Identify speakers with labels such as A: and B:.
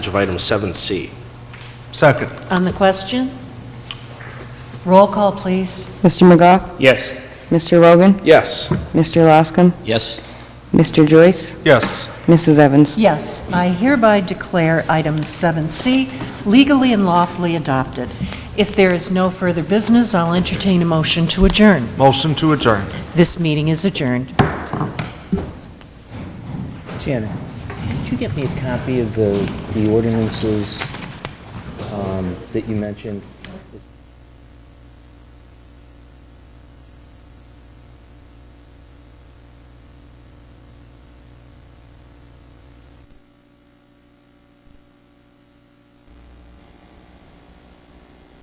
A: of item 7C.
B: Second.
C: On the question? Roll call, please.
D: Mr. McGough?
E: Yes.
D: Mr. Rogan?
A: Yes.
D: Mr. Loscom?
E: Yes.
D: Mr. Joyce?
B: Yes.
D: Mrs. Evans?
C: Yes, I hereby declare item 7C legally and lawfully adopted. If there is no further business, I'll entertain a motion to adjourn.
B: Motion to adjourn.
C: This meeting is adjourned.
E: Janet, could you get me a copy of the, the ordinances um, that you mentioned